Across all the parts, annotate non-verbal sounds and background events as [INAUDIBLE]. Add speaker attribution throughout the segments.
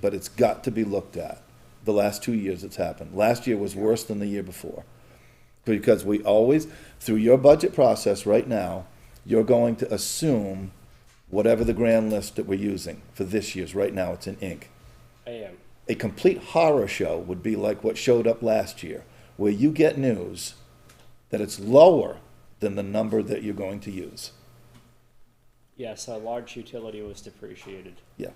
Speaker 1: but it's got to be looked at. The last two years it's happened. Last year was worse than the year before. Because we always, through your budget process right now, you're going to assume whatever the grand list that we're using for this year's, right now it's in ink.
Speaker 2: I am.
Speaker 1: A complete horror show would be like what showed up last year, where you get news that it's lower than the number that you're going to use.
Speaker 2: Yes, a large utility was depreciated.
Speaker 1: Yeah.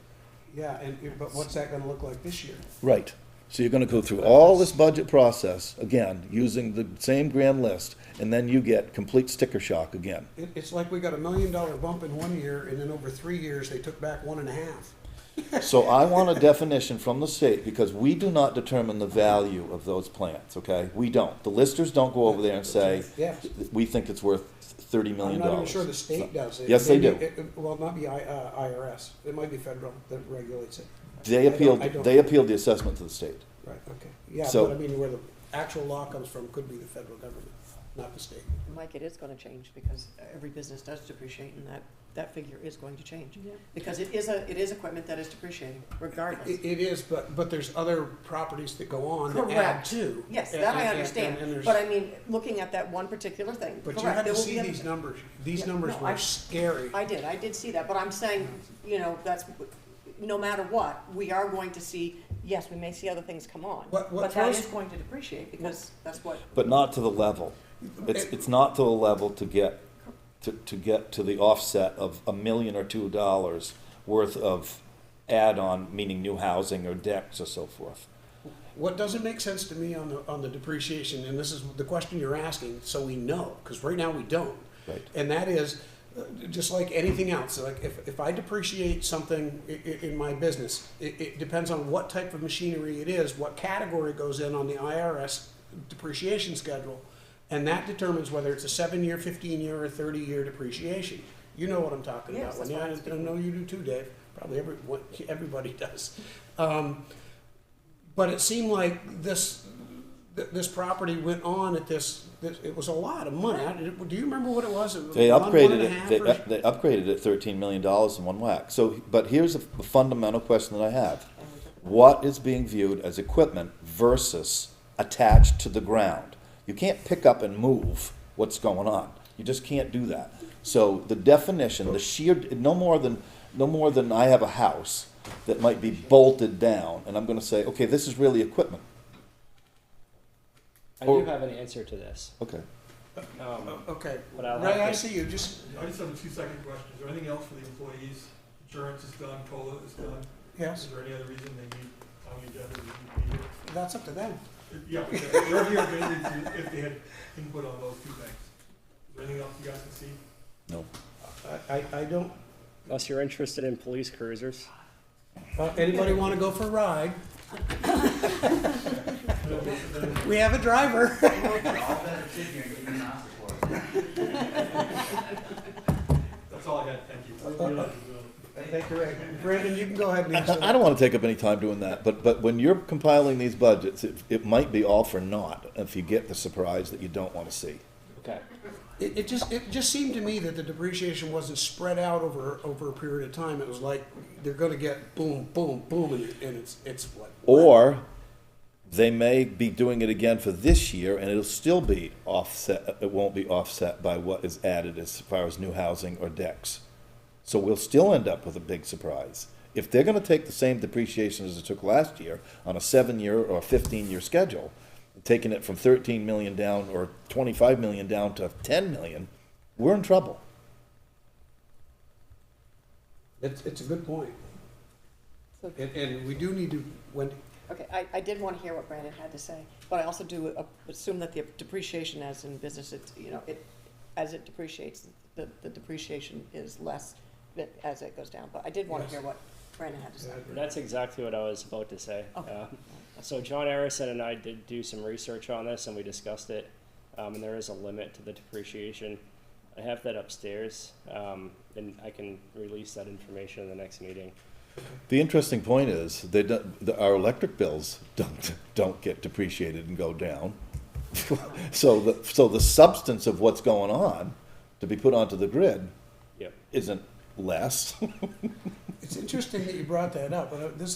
Speaker 3: Yeah, and, but what's that gonna look like this year?
Speaker 1: Right. So you're gonna go through all this budget process, again, using the same grand list, and then you get complete sticker shock again.
Speaker 3: It, it's like we got a million dollar bump in one year, and then over three years, they took back one and a half.
Speaker 1: So I want a definition from the state, because we do not determine the value of those plants, okay? We don't. The listers don't go over there and say,
Speaker 3: Yes.
Speaker 1: we think it's worth thirty million
Speaker 3: I'm
Speaker 1: dollars.
Speaker 3: not even sure the state does it.
Speaker 1: Yes, they
Speaker 3: Maybe
Speaker 1: do.
Speaker 3: it- it- Well, it might be I, uh, IRS, it might be federal that regulates it.
Speaker 1: They
Speaker 3: I don't-
Speaker 1: appealed,
Speaker 3: I don't-
Speaker 1: they appealed the assessment to the state.
Speaker 3: Right, okay, yeah,
Speaker 1: So-
Speaker 3: but I mean, where the actual law comes from could be the federal government, not the state.
Speaker 4: Mike, it is gonna change because every business does depreciate and that, that figure is going to change. Because it is a, it is equipment that is depreciating regardless.
Speaker 3: It, it is, but, but there's other properties that go on that add
Speaker 4: Correct.
Speaker 3: to.
Speaker 4: Yes,
Speaker 3: And-
Speaker 4: that
Speaker 3: and-
Speaker 4: I
Speaker 3: and- and
Speaker 4: understand,
Speaker 3: there's-
Speaker 4: but I mean, looking at that one particular thing,
Speaker 3: But
Speaker 4: correct.
Speaker 3: you had
Speaker 4: there
Speaker 3: to
Speaker 4: will be
Speaker 3: see
Speaker 4: other-
Speaker 3: these numbers, these
Speaker 4: Yeah,
Speaker 3: numbers
Speaker 4: no,
Speaker 3: were
Speaker 4: I-
Speaker 3: scary.
Speaker 4: I did, I did see that, but I'm saying, you know, that's, no matter what, we are going to see, yes, we may see other things come on.
Speaker 3: What- what
Speaker 4: But that
Speaker 3: throws-
Speaker 4: is going to depreciate because that's what,
Speaker 1: but not to the level. It's, it's not to the level to get, to, to get to the offset of a million or two dollars worth of add-on, meaning new housing or decks or so forth.
Speaker 3: What doesn't make sense to me on the, on the depreciation, and this is the question you're asking, so we know, because right now we don't.
Speaker 1: Right.
Speaker 3: And that is, uh, just like anything else, like if, if I depreciate something i- i- in my business, it, it depends on what type of machinery it is, what category it goes in on the IRS depreciation schedule. And that determines whether it's a seven-year, fifteen-year, or thirty-year depreciation. You know what I'm talking
Speaker 4: Yes,
Speaker 3: about.
Speaker 4: that's
Speaker 3: Wendy.
Speaker 4: what I'm
Speaker 3: I- I
Speaker 4: speaking
Speaker 3: know you do too, Dave. Probably every, what- everybody does. Um, but it seemed like this th- this property went on at this, this it was a lot of money. I, do you remember what it was? It was
Speaker 1: They
Speaker 3: one- one
Speaker 1: upgraded
Speaker 3: and a
Speaker 1: it,
Speaker 3: half
Speaker 1: they,
Speaker 3: or-
Speaker 1: up- they upgraded it thirteen million dollars in one whack. So, but here's a fundamental question that I have. What is being viewed as equipment versus attached to the ground? You can't pick up and move what's going on. You just can't do that. So the definition, the sheer, no more than, no more than I have a house that might be bolted down and I'm gonna say, okay, this is really equipment.
Speaker 2: I
Speaker 1: Or-
Speaker 2: do have an answer to this.
Speaker 1: Okay.
Speaker 2: Um,
Speaker 3: Oh, okay.
Speaker 2: But I'll
Speaker 3: Ray,
Speaker 2: have
Speaker 3: I
Speaker 2: to-
Speaker 3: see you. Just
Speaker 5: I just have a two-second question. Is there anything else for the employees? Insurance is done, COLA is done.
Speaker 3: yes,
Speaker 5: Is there any other reason they need, on the agenda, they need to be here?
Speaker 3: that's up to them.
Speaker 5: Yeah, but they're they're here mainly to- if they had input on those two things. Is there anything else you guys can see?
Speaker 3: I, I, I don't.
Speaker 2: Unless you're interested in police cruisers.
Speaker 3: Uh, anybody want to go for a ride? We have a driver.
Speaker 6: I'll better sit here and give you an answer for it.
Speaker 5: That's all I had, thank you.
Speaker 3: Thank you, Ray. Brandon, you can go ahead and answer.
Speaker 1: I I don't want to take up any time doing that, but, but when you're compiling these budgets, it, it might be all for naught if you get the surprise that you don't want to see.
Speaker 2: Okay.
Speaker 3: It, it just it just seemed to me that the depreciation wasn't spread out over over a period of time. It was like they're going to get boom, boom, boom, and, and it's it's what
Speaker 1: Or they may be doing it again for this year and it'll still be offset, it won't be offset by what is added as far as new housing or decks. So we'll still end up with a big surprise. If they're gonna take the same depreciation as it took last year on a seven-year or fifteen-year schedule, taking it from thirteen million down or twenty-five million down to ten million, we're in trouble.
Speaker 3: It's, it's a good point.
Speaker 4: So-
Speaker 3: And, and we do need to, Wendy,
Speaker 4: okay, I, I did wanna hear what Brandon had to say, but I also do uh, assume that the depreciation as in business, it's, you know, it, as it depreciates, the, the depreciation is less that- as it goes down, but I did wanna
Speaker 3: Yes.
Speaker 4: hear what Brandon had to say.
Speaker 2: That's exactly what I was about to say.
Speaker 4: Okay.
Speaker 2: Uh, so John Arison and I did do some research on this, and we discussed it. Um, and there is a limit to the depreciation. I have that upstairs, um, and I can release that information in the next meeting.
Speaker 1: The interesting point is, they don't, the, our electric bills don't, [LAUGHS] don't get depreciated and go down. [LAUGHS] So the, so the substance of what's going on to be put onto the grid
Speaker 2: Yep.
Speaker 1: isn't less.
Speaker 3: it's interesting that you brought that up, but uh, this